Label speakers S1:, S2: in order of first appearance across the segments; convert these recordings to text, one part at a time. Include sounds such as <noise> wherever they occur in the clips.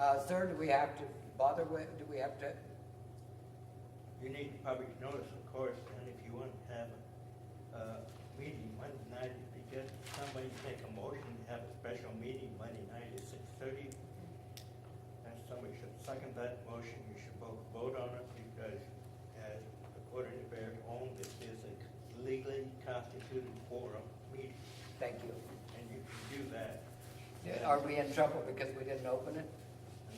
S1: Uh, sir, do we have to bother with, do we have to,
S2: You need public notice, of course, and if you want to have a uh, meeting Monday night, if you get, somebody make a motion to have a special meeting Monday night at six thirty, and somebody should second that motion, you should both vote on it, because as according to Barrett Holm, this is a legally constituted forum meeting,
S1: thank you.
S2: and you can do that.
S1: Are we in trouble because we didn't open it?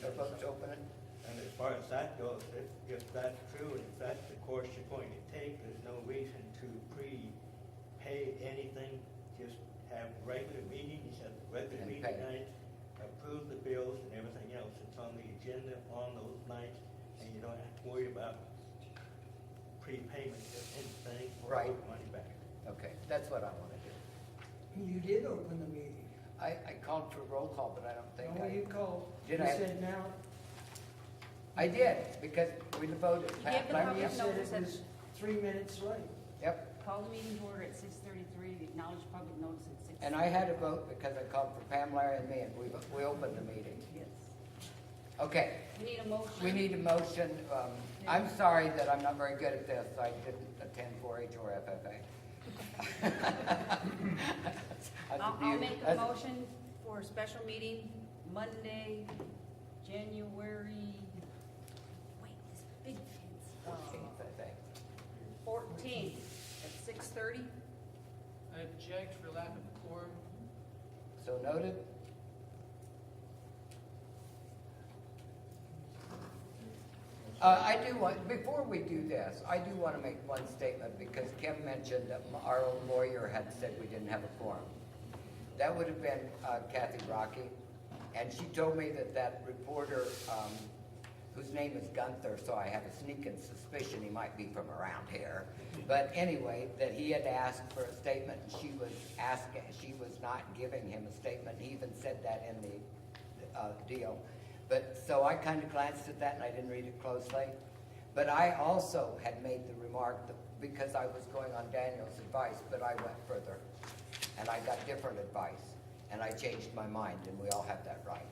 S1: They're supposed to open it?
S2: And as far as that goes, if, if that's true, and if that's the course you're going to take, there's no reason to pre-pay anything. Just have regular meetings, have the regular
S1: And
S2: meeting
S1: pay.
S2: nights, approve the bills and everything else that's on the agenda on those nights, and you don't have to worry about prepayment of anything or
S1: Right.
S2: money back.
S1: Okay, that's what I wanna do.
S3: You did open the meeting.
S1: I, I called for roll call, but I don't think
S3: No, you
S1: I,
S3: called. You
S1: Did I-
S3: said now,
S1: I did, because we voted.
S4: gave the
S3: you
S4: public
S1: Yep,
S3: said
S4: notice
S3: it
S4: that-
S3: was three minutes late.
S1: Yep,
S4: Call the meeting to order at six thirty-three, acknowledge public notice at six.
S1: and I had a vote because I called for Pam, Larry, and me, and we, we opened the meeting.
S4: Yes.
S1: Okay,
S4: We need a motion.
S1: we need a motion, um, I'm sorry that I'm not very good at this, I didn't attend four H or FFA. <laughs> That's a
S4: I'll, I'll
S1: beauty-
S4: make a
S1: that's-
S4: motion for a special meeting Monday, January, wait, this big
S1: Fourteenth,
S4: fence.
S1: I think.
S4: Fourteenth at six thirty.
S5: I object for lack of quorum.
S1: So noted. Uh, I do want, before we do this, I do want to make one statement because Kim mentioned that m- our own lawyer had said we didn't have a quorum. That would have been uh, Kathy Rocky, and she told me that that reporter, um, whose name is Gunther, so I have a sneaking suspicion he might be from around here. But anyway, that he had asked for a statement, and she was asking, she was not giving him a statement. He even said that in the uh, deal. But, so I kind of glanced at that and I didn't read it closely. But I also had made the remark that, because I was going on Daniel's advice, but I went further. And I got different advice, and I changed my mind, and we all have that right.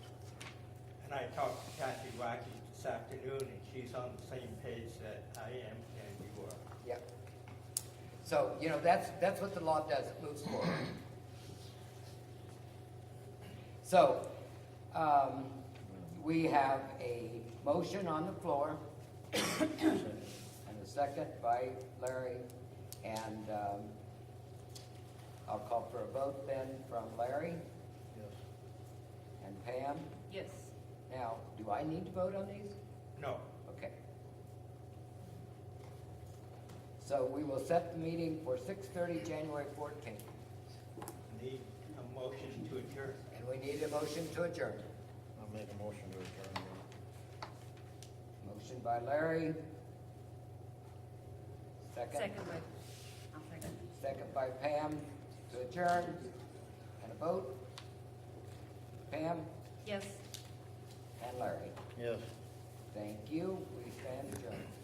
S2: And I talked to Kathy Rocky this afternoon, and she's on the same page that I am and you are.
S1: Yep. So, you know, that's, that's what the law does, it moves forward. So, um, we have a motion on the floor, and a second by Larry, and, um, I'll call for a vote then from Larry
S2: Yes.
S1: and Pam.
S4: Yes.
S1: Now, do I need to vote on these?
S2: No,
S1: Okay. So we will set the meeting for six thirty, January fourteenth,
S2: Need a motion to adjourn.
S1: and we need a motion to adjourn.
S6: I'll make a motion to adjourn.
S1: Motion by Larry. Second,
S4: Second by, I'll second.
S1: second by Pam to adjourn, and a vote. Pam
S4: Yes.
S1: and Larry,
S6: Yes.
S1: thank you, we stand adjourned.